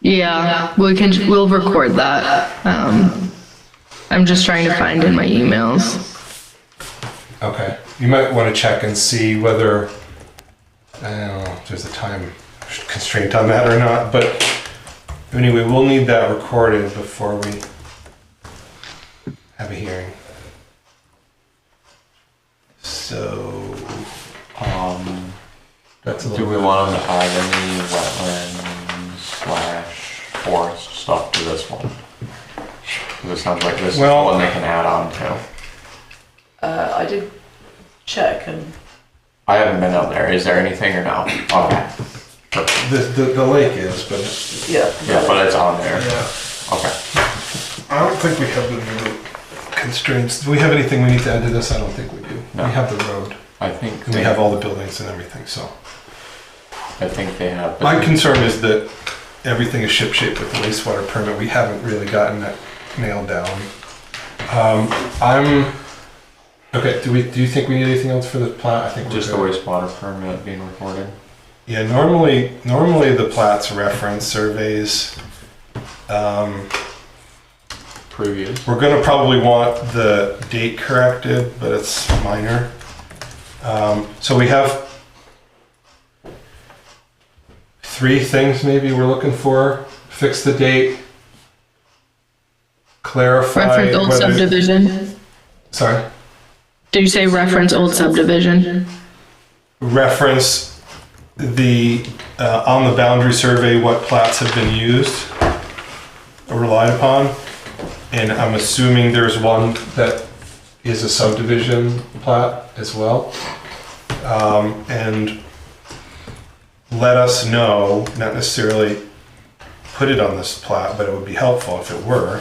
Yeah, we can, we'll record that. Um, I'm just trying to find in my emails. Okay, you might want to check and see whether, I don't know if there's a time constraint on that or not, but anyway, we'll need that recorded before we have a hearing. So, Um, that's a do little, we want them to add any wetland slash forest stuff to this one? 'Cause It sounds like this is the Well- one they can add on to. Uh, I did check and I haven't been up there. Is there anything or no? Oh, Okay. Perfect. the, the, the lake is, but, yeah. Yeah, but it's on there. yeah. Okay. I don't think we have the road constraints. Do we have anything we need to add to this? I don't think we do. No. We have the road I think and we have all the buildings and everything, so. I think they have. My concern is that everything is shipshape with the wastewater permit. We haven't really gotten that nailed down. Um, I'm, okay, do we, do you think we need anything else for the plat? I think we're Just the good. wastewater permit being recorded. Yeah, normally, normally the plats reference surveys. Um, Previous. We're gonna probably want the date corrected, but it's minor. Um, so we have three things maybe we're looking for. Fix the date. Clarify Reference old whether, subdivision. sorry, Did you say reference old subdivision? reference the, uh, on the boundary survey, what plats have been used or relied upon. And I'm assuming there's one that is a subdivision plat as well. Um, and let us know, not necessarily put it on this plat, but it would be helpful if it were,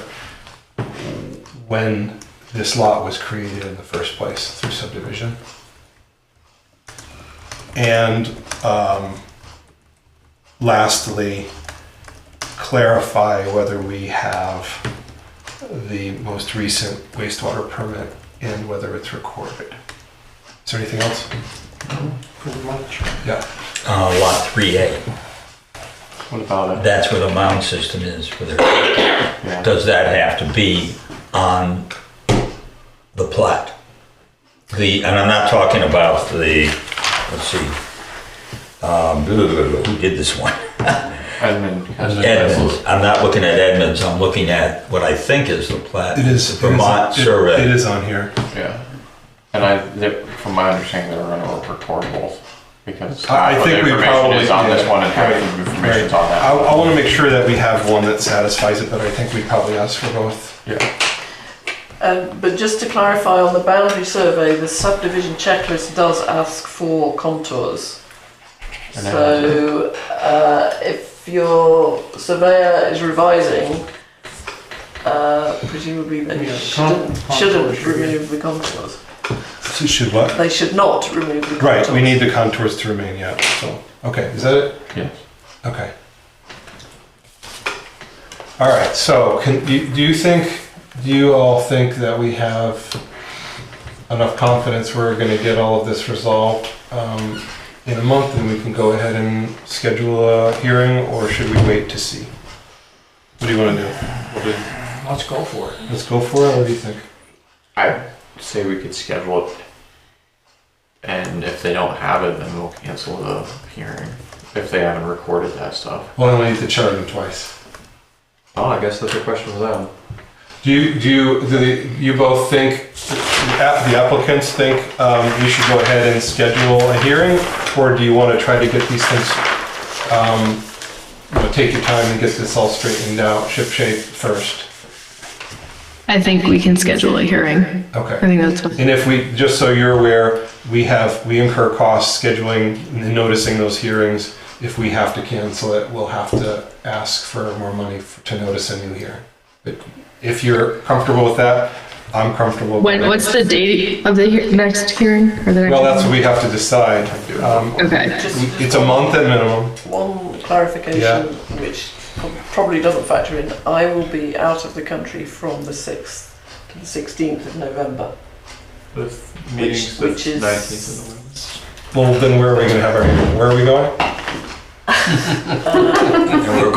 when this lot was created in the first place through subdivision. And um, lastly, clarify whether we have the most recent wastewater permit and whether it's recorded. Is there anything else? Pretty much. Yeah. Uh, lot three A, What about it? that's where the mound system is for their, Yeah. does that have to be on the plat? The, and I'm not talking about the, let's see, um, who did this one? Edmund. has- Edmonds, I'm not looking at Edmonds, I'm looking at what I think is the plat. It is. The Vermont it is- survey. It is on here. Yeah. And I, they- from my understanding, they're going to record both because I- I half of think the we information probably- is on this yeah, one and half right, of the Right. information's on that. I, one. I want to make sure that we have one that satisfies it, but I think we probably ask for both. Yeah. Um, but just to clarify on the boundary survey, the subdivision checklist does ask for contours. And So uh, if your surveyor is revising, uh, presumably they Yeah, shouldn't, con- contours shouldn't should be- remove the contours. Should what? They should not remove the contours. Right, we need the contours to remain, yeah, so, okay, is that it? Yes. Okay. All right, so can, do you- do you think, do you all think that we have enough confidence we're gonna get all of this resolved um, in a month and we can go ahead and schedule a hearing or should we wait to see? What do you wanna do? Let's go for it. Let's go for it, what do you think? I say we could schedule it, and if they don't have it, then we'll cancel the hearing if they haven't recorded that stuff. Well, I only need to charge them twice. Oh, I guess that's a question for them. Do you, do you, do the- you both think, uh, the applicants think um, we should go ahead and schedule a hearing? Or do you want to try to get these things, um, you know, take your time and get this all straightened out, ship shape first? I think we can schedule a hearing. I Okay. think that's what. And if we, just so you're aware, we have, we incur costs scheduling and noticing those hearings. If we have to cancel it, we'll have to ask for more money f- to notice a new hearing. But if you're comfortable with that, I'm comfortable. When, with it. what's the date of the he- next hearing or the next? Well, that's what we have to decide. Um, Okay, Just- we- It's a month at minimum. One clarification, Yeah. which probably doesn't factor in, I will be out of the country from the 6th to the 16th of November. The meeting's the Which- which is- 19th of Well, then where are we gonna have our, where are we going? And we're